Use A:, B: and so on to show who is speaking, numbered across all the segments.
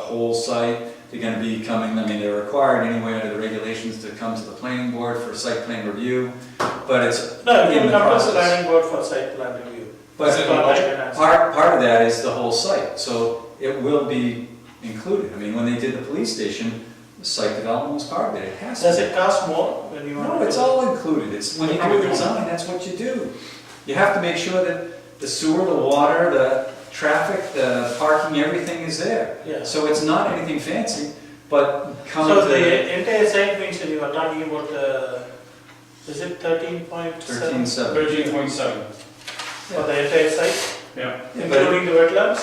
A: whole site. They're gonna be coming, I mean, they're required anyway under the regulations to come to the planning board for site plan review, but it's
B: No, you
A: in the
B: come to the
A: process.
B: planning board for site plan review.
A: But
B: That's what I can answer.
A: Part, part of that is the whole site, so it will be included. I mean, when they did the police station, the site development was part of it, it has
B: Does
A: to
B: it cost more when you
A: be.
B: want?
A: No,
B: to-
A: it's all included, it's, when you do a design, that's what you do. You have to make sure that the sewer, the water, the traffic, the parking, everything is there.
B: Yeah.
A: So it's not anything fancy, but come
B: So
A: to
B: the entire site means that you are talking about, uh, is it thirteen point
A: thirteen
B: seven?
A: seven.
C: Thirteen point seven,
B: For the entire site,
C: yeah.
A: But
B: including the wetlands?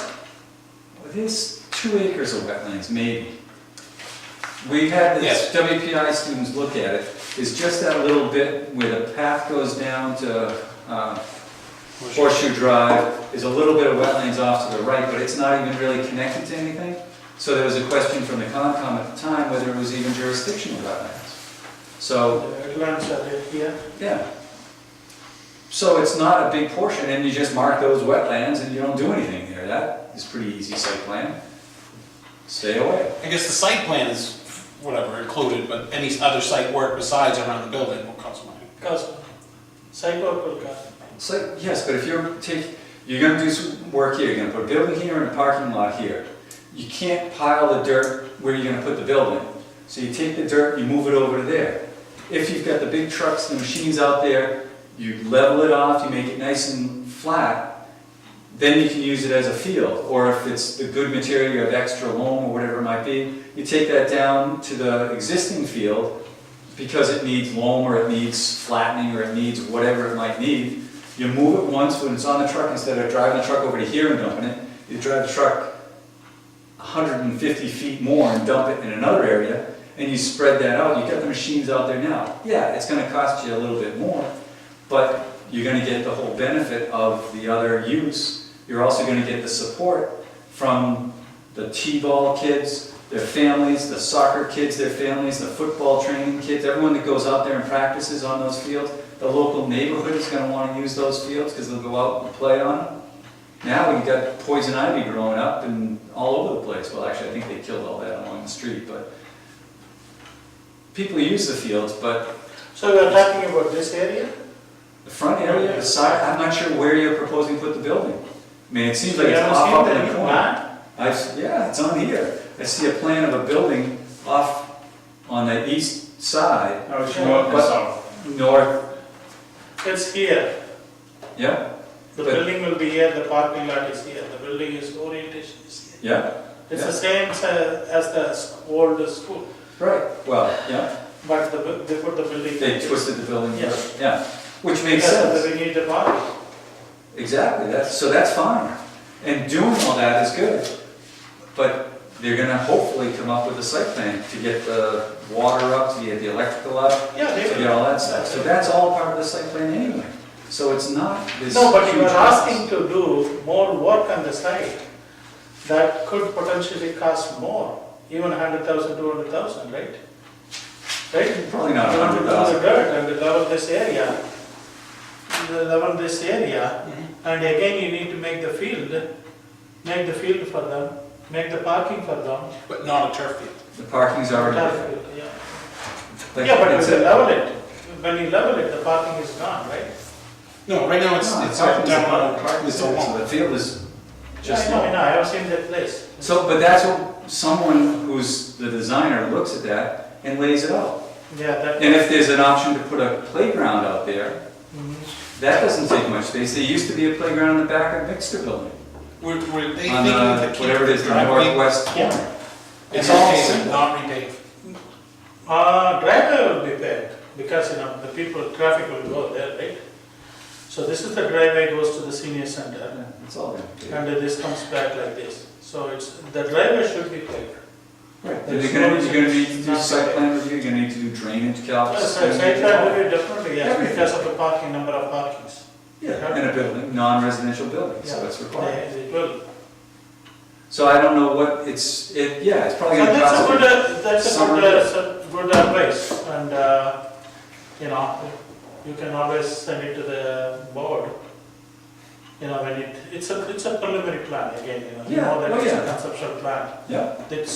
A: it is two acres of wetlands, maybe. We've had this WPI students look at it, it's just that little bit where the path goes down to uh, Horseshoe Drive, is a little bit of wetlands off to the right, but it's not even really connected to anything. So there was a question from the Concom at the time whether it was even jurisdictional wetlands. So
B: The wetlands are there here.
A: Yeah. So it's not a big portion, and you just mark those wetlands and you don't do anything there, that is pretty easy site plan. Stay away.
D: I guess the site plan is whatever included, but any other site work besides around the building will cost money.
B: Cost, site work will cost.
A: So, yes, but if you're take, you're gonna do some work here, you're gonna put a building here and a parking lot here. You can't pile the dirt where you're gonna put the building, so you take the dirt, you move it over to there. If you've got the big trucks, the machines out there, you level it off, you make it nice and flat, then you can use it as a field, or if it's the good material, you have extra loam or whatever it might be, you take that down to the existing field because it needs loam or it needs flattening or it needs whatever it might need. You move it once when it's on the truck, instead of driving the truck over to here and dumping it, you drive the truck hundred and fifty feet more and dump it in another area, and you spread that out, you got the machines out there now. Yeah, it's gonna cost you a little bit more, but you're gonna get the whole benefit of the other use. You're also gonna get the support from the T-ball kids, their families, the soccer kids, their families, the football training kids, everyone that goes out there and practices on those fields. The local neighborhood is gonna wanna use those fields, cause they'll go out and play on them. Now we've got poison ivy growing up and all over the place. Well, actually, I think they killed all that along the street, but people use the fields, but
B: So we are talking about this area?
A: the front area, the side, I'm not sure where you're proposing to put the building. I mean, it seems like
B: You
A: it's
B: haven't
A: off
B: seen
A: up
B: the
A: in
B: new
A: the corner.
B: plan?
A: I, s- yeah, it's on here. I see a plan of a building off on the east side,
C: Now, if you go up and south,
A: north,
B: It's here.
A: yeah,
B: The
A: But-
B: building will be here, the parking lot is here, the building is orientation is here.
A: yeah,
B: It's the same uh, as the s- old school,
A: right, well, yeah.
B: but the, bu- they put the building.
A: They twisted the building,
B: Yeah.
A: yeah, which makes
B: Because
A: sense.
B: We need the parking.
A: Exactly, that's, so that's fine, and doing all that is good, but they're gonna hopefully come up with a site plan to get the water up, to get the electrical up,
B: Yeah,
A: to
B: they
A: get
B: will.
A: all that stuff, so that's all part of the site plan anyway, so it's not this.
B: No, but you
A: huge
B: are
A: process.
B: asking to do more work on the site that could potentially cost more, even hundred thousand, two hundred thousand, right? Right?
A: Probably not a
B: You want to
A: hundred
B: do the
A: thousand,
B: dirt and the level this area, the level this area, and again you need to make the field, make the field for them, make the parking for them.
D: But not a turf field.
A: the parking's already
B: Tar
A: there.
B: field, Yeah,
A: Like,
B: Yeah, but
A: it's
B: if you
A: a-
B: level it, when you level it, the parking is gone, right?
D: No, right now it's,
A: No,
D: it's all
A: parking's there,
D: down,
A: parking's
D: it's
A: there,
D: all
A: so
D: long.
A: The field is just.
B: Yeah, I know, I know, I have seen that place.
A: So, but that's what, someone who's the designer looks at that and lays it out.
B: Yeah, that.
A: And if there's an option to put a playground out there,
B: Mhm.
A: that doesn't take much space. There used to be a playground in the back of Mixter Building.
D: Were, were they
A: On
D: thinking
A: uh,
D: to keep
A: whatever it
D: the
A: is, the
D: driveway?
A: northwest
B: Yeah.
A: corner.
D: It's
A: Yeah.
D: all
A: Yeah.
D: paved, not repaved.
B: Uh, driveway will be paved, because, you know, the people, traffic will go there, right? So this is the driveway goes to the senior center,
A: Yeah, It's all there.
B: and this comes back like this. So it's, the driveway should be paved.
A: Right.
B: There's
A: You're gonna,
B: no-
A: you're gonna need to do
B: not
A: site
B: there.
A: plan review, you're gonna need to do drainage calcs.
B: Yes, site site plan will be definitely, yes,
A: Everything.
B: because of the parking, number of parkings.
A: Yeah, and a building, non-residential building, so
B: Yeah.
A: that's required.
B: They- It will.
A: So I don't know what, it's, it, yeah, it's
B: So
A: probably gonna
B: that's a
A: cost.
B: good, uh, that's a
A: summer.
B: good, uh, so- good advice, and, uh, you know, you can always send it to the board. You know, when it, it's a, it's a preliminary plan again, you know, you
A: Yeah,
B: know that
A: oh,
B: it's a
A: yeah.
B: conceptual plan.
A: Yeah,
B: It's